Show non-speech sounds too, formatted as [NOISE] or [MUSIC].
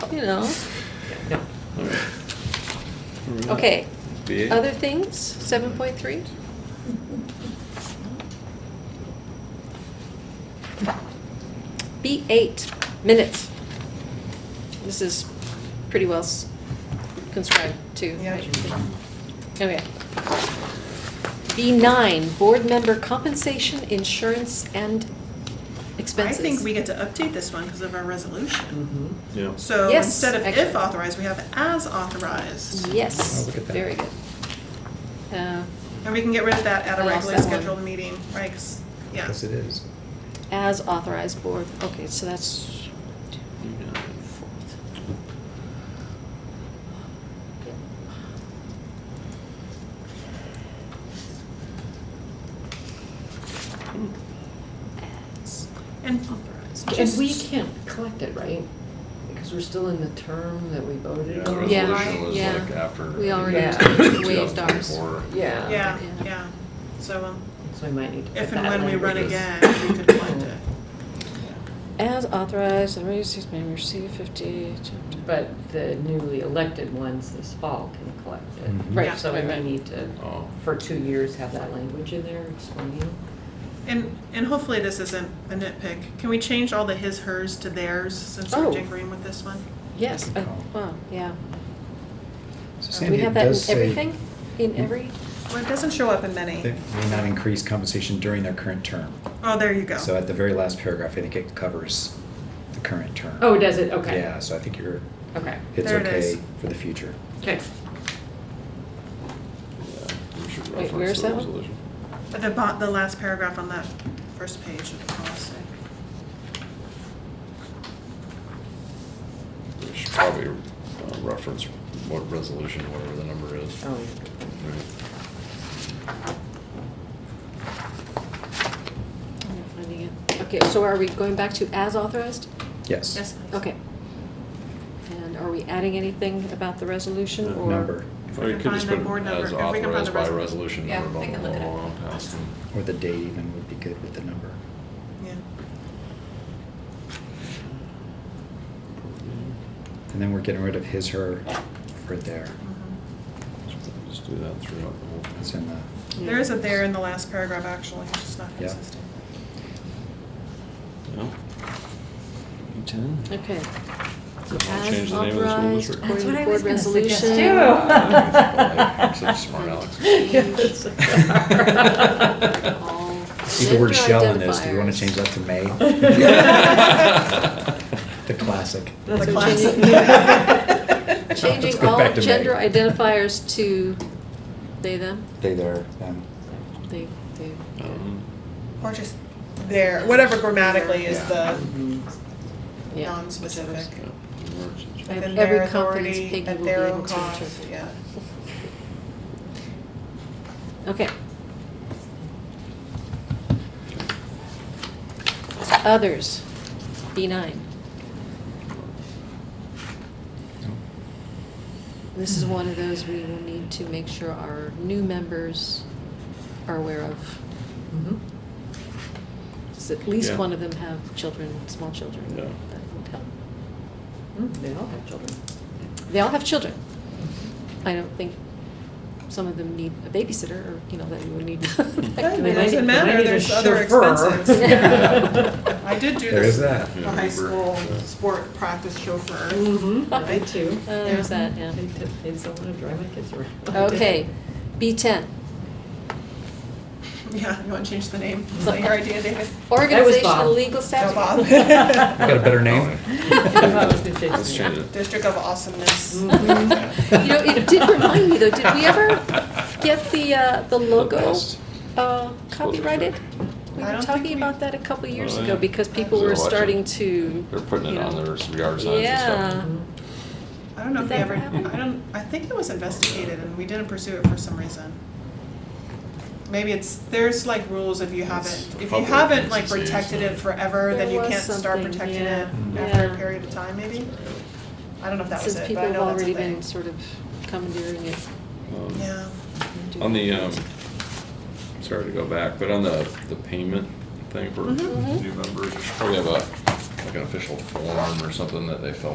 you know. Okay, other things, seven point three? B eight, minutes. This is pretty well s- conscribed too. Okay. B nine, board member compensation, insurance and I expenses. think we get to update this one because of our resolution. Yeah. So Yes, instead of actually. if authorized, we have as authorized. Yes, Oh, look at that. very good. Uh, And we can get rid of that at a I lost regularly that one. scheduled meeting, right? 'Cause- yeah. Yes, it is. As authorized board, okay, so that's, as And authorized. And we can't collect it, right? Because we're still in the term that we voted The on. Yeah. resolution was Yeah. like after. We already Yeah. waived ours. 2024. Yeah. Yeah, Yeah. yeah. So um, So we might need to put if and that when we run language. again, we could collect it. As authorized, the raise six may receive fifty. to- to- But the newly elected ones this fall can collect it. Mhm. Right, So we right, may right. need to, Mm-hmm. Oh. for two years, have that language in there explaining. And, and hopefully this isn't a nitpick. Can we change all the his, hers to theirs since Oh. we're agreeing with this one? Yes, Good uh, call. wow, yeah. Do Uh, So we Sandy, it have that in does say Hmm? everything? In every, Well, it doesn't show up in many. They may not increase compensation during their current term. Oh, there you go. So at the very last paragraph, I think it covers the current term. Oh, does it? Okay. Yeah, so I think you're, Okay. it's There it okay is. for the future. Okay. Yeah, we should Wait, reference where's the that one? resolution. At the bo- the last paragraph on that first page of the policy. We should probably uh, reference what resolution, whatever the number is. Oh, Right. I'm not finding it. Okay, so are we going back to as authorized? Yes. Yes, please. Okay. And are we adding anything about the resolution Uh, or? Number, If Or we you can could just find put the board number- as if we can find the authorized by resol- resolution Yeah, number, blah, I blah, can look blah, at it. blah, past them. or the date even would be good with the number. Yeah. And then we're getting rid of his, her for there. Mhm. Just do that throughout the whole. That's in the, Yeah. There is a there in the last paragraph, actually, it's just not Yeah. consistent. Yeah. [LAUGHS] Ten? Okay. Wanna As change the name of the school authorized district? That's according what to I board was gonna resolution. suggest, too. Oh. [LAUGHS] I'm such a smart Alex. Yes. All see the gender word shell in this, do you want identifiers. to change that to [LAUGHS] may? [LAUGHS] The classic. That's The what you [LAUGHS] classic. need. Let's Changing go all back to May. gender identifiers to they, them, They there, them. they, they. Um, Or just there, whatever grammatically is Yeah. the Mm-hmm. Mhm. Yeah. non-specific. yeah, emergency. I have Within every their confidence authority, Peggy at will be their able own to cost, interpret. Yeah. Okay. Others, B nine. This is one of those we will need to make sure our new members are aware of. Mhm. Does at least Yeah. one of them have children, small children? Yeah. That would help. Mm, They all have children. They all have children. I don't think some of them need a babysitter or, you know, that you would need. [LAUGHS] [LAUGHS] It They might- doesn't they might matter, need a there's other chauffeur. [LAUGHS] expenses. I did do There is this that. Yeah, high Uber. school Yeah. sport practice chauffeur. Mm-hmm, I did too. Uh, There's that, yeah. They did, they still wanna drive my kids around. [LAUGHS] Okay, B ten, [LAUGHS] Yeah, you wanna change the name? Is that your idea, David? organization Bob. and legal No, staff. [LAUGHS] Bob. [LAUGHS] I got a better name? Let's change it. District of Awesomeness. Mm-hmm. You know, it did remind me though, did we ever get the, uh, the logo best. uh, copyrighted? We I were don't talking think we- about that a couple years Oh, ago yeah. because people They're were watching. starting to. They're putting you it on know. their yard signs Yeah. Uh-huh. and I don't know if Did that they ever, happen? I don't, I think it was investigated and we didn't pursue it for some reason. Maybe it's, there's like rules if you It's haven't, if you public haven't like agency, protected so- it forever, then There you was can't start something, protecting yeah. it Mm. after Yeah. a period of time maybe? I don't know if that was Since it, people but I have know that's a already thing. been sort of commandeering it. stuff. Um, Yeah, and doing On the, it. um, sorry to go back, but on the, the payment thing for Mhm. new members, we should probably have a, like an official form or something that they fill